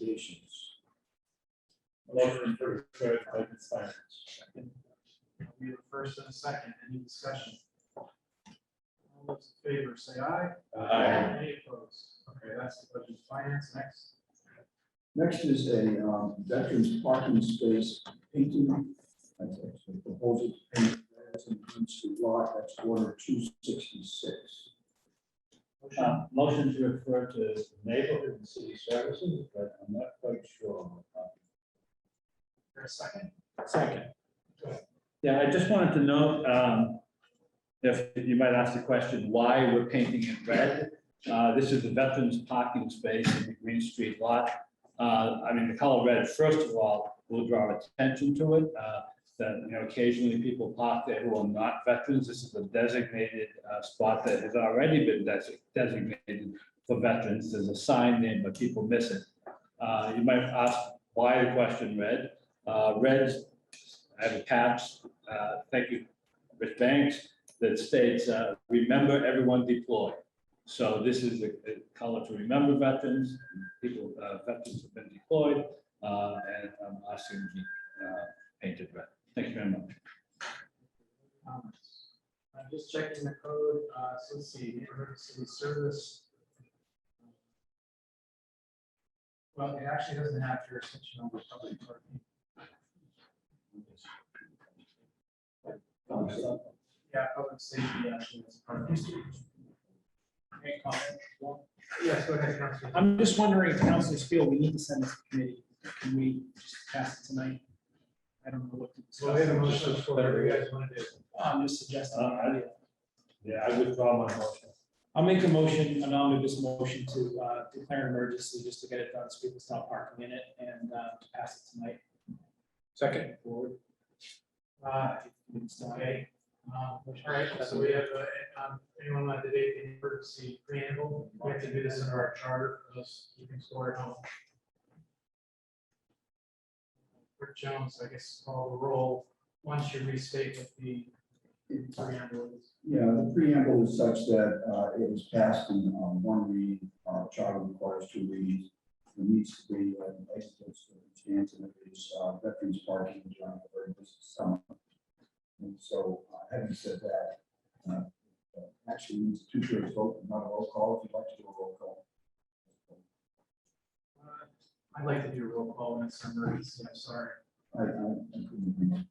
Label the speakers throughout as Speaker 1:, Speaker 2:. Speaker 1: recommendations.
Speaker 2: Motion for third, Clayton Sires.
Speaker 3: We have a first and a second, any discussion? All those in favor, say aye. Any opposed? Okay, that's the budget finance, next.
Speaker 1: Next is a um, veterans parking space painting. That's actually proposed paint that's an emergency lot, that's order two sixty-six.
Speaker 2: Uh, Motion to refer to neighborhood and city services, but I'm not quite sure.
Speaker 3: For a second,
Speaker 2: Second. Yeah, I just wanted to note, um, if you might ask the question, why we're painting it red? Uh, This is the veterans parking space in the Green Street lot. Uh, I mean, the color red, first of all, will draw attention to it. uh, That, you know, occasionally people park there who are not veterans. This is a designated uh, spot that has already been desi- designated for veterans. There's a sign there, but people miss it. Uh, You might ask why the question red? Uh, Red's, I have a patch, uh, thank you, Rich Banks, that states, uh, remember everyone deployed. So this is a a color to remember veterans, people, uh, veterans have been deployed, uh, and I'm asking to be uh, painted red. Thank you very much.
Speaker 3: comments. I'm just checking the code, uh, so let's see, neighborhood city service. Well, it actually doesn't have jurisdiction over public parking.
Speaker 1: Thumbs up.
Speaker 3: Yeah, public safety actually is part of this. Any comment? Yes, go ahead, Councilor.
Speaker 4: I'm just wondering if councilors feel we need to send this to committee. Can we just pass it tonight? I don't know what to discuss.
Speaker 3: So we have a motion for whatever you guys want to do.
Speaker 4: I'm just suggesting.
Speaker 2: Uh, I- Yeah, I withdraw my motion.
Speaker 4: I'll make a motion, an omnibus motion to uh, declare an emergency just to get it done so people stop parking in it and uh, to pass it tonight. Second. Forward.
Speaker 3: Uh,
Speaker 4: It's uh, done.
Speaker 3: Okay. Um, All right, so we have, uh, um, anyone want to debate the emergency preamble? We have to do this under our charter, for those keeping score at home. Rick Jones, I guess, call the roll. Once you restate what the preamble is.
Speaker 1: Yeah, the preamble is such that uh, it was passed in um, one read, uh, charter requires two reads. There needs to be uh, an exit circumstance and it is uh, veterans parking during the very busy summer. And so uh, having said that, uh, uh, actually needs two thirds vote, not a roll call, if you'd like to do a roll call.
Speaker 3: Uh, I'd like to do a roll call when it's an emergency, I'm sorry.
Speaker 1: I, I I couldn't agree more.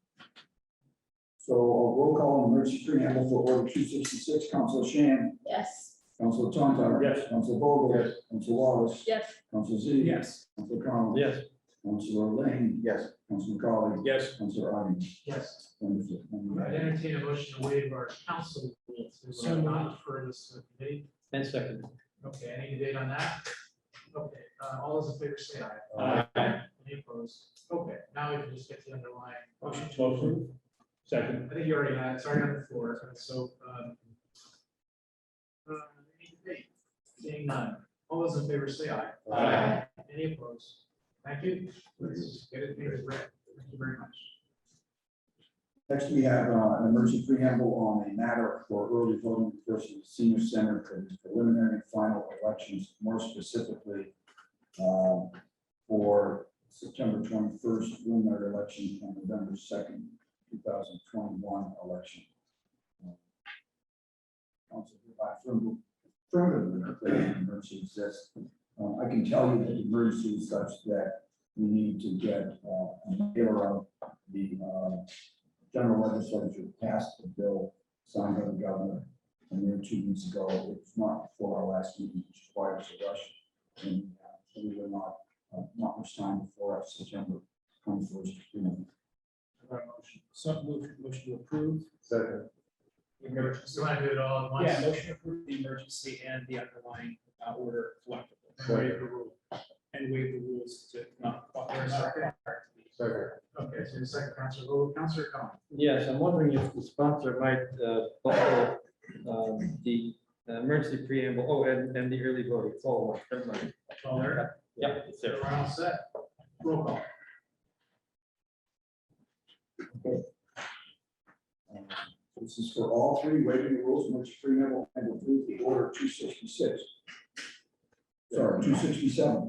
Speaker 1: So a roll call on emergency preamble for order two sixty-six, Council Shan,
Speaker 5: Yes.
Speaker 1: Council Tontar.
Speaker 2: Yes.
Speaker 1: Council Vogel. Yes. Council Wallace.
Speaker 5: Yes.
Speaker 1: Council Z.
Speaker 4: Yes.
Speaker 1: Council Con.
Speaker 2: Yes.
Speaker 1: Council Lane. Yes. Council McCollum.
Speaker 2: Yes.
Speaker 1: Council Arden.
Speaker 3: Yes.
Speaker 1: Wonderful.
Speaker 3: I would entertain a motion to waive our council rules. We will not refer this to the committee.
Speaker 2: Ten seconds.
Speaker 3: Okay, any debate on that? Okay, uh, all those in favor say aye.
Speaker 2: Aye.
Speaker 3: Any opposed? Okay, now we can just get the underlying.
Speaker 2: Motion to approve. Second.
Speaker 3: I think you already had, it. it's already on the floor, so, um. uh, Any debate? Seeing none, all those in favor say aye.
Speaker 2: Aye.
Speaker 3: Any opposed? Thank you. Let's get it, here, Brett. Thank you very much.
Speaker 1: Next, we have uh, an emergency preamble on a matter for early voting versus the senior center for the preliminary and final elections, more specifically um, for September twenty-first preliminary election and November second, two thousand twenty-one election. Uh, Council hereby affirm- affirmatively declare an emergency exists. Uh, I can tell you that the emergency is such that we need to get uh, a mayor of the uh, general legislature passed a bill signed by the governor. And then two weeks ago, it was not before our last meeting, which requires a rush. And uh, so we were not, uh, not much time before our September twenty-first.
Speaker 4: So move, motion to approve.
Speaker 1: Second.
Speaker 3: You want to do it all at once?
Speaker 4: Yeah, motion to approve the emergency and the underlying uh, order collectively.
Speaker 3: And waive the rule.
Speaker 4: And waive the rules to not.
Speaker 3: There a second? Okay, so the second, Counselor Vogel, Counselor Con.
Speaker 6: Yes, I'm wondering if the sponsor might uh, bundle um, the uh, emergency preamble, oh, and, and the early voting, it's all one, never mind.
Speaker 3: All there.
Speaker 6: Yep, it's there.
Speaker 3: We're all set. Roll call.
Speaker 1: Uh, This is for all three waiving the rules, which preamble and approve the order two sixty-six. Sorry, two sixty-seven.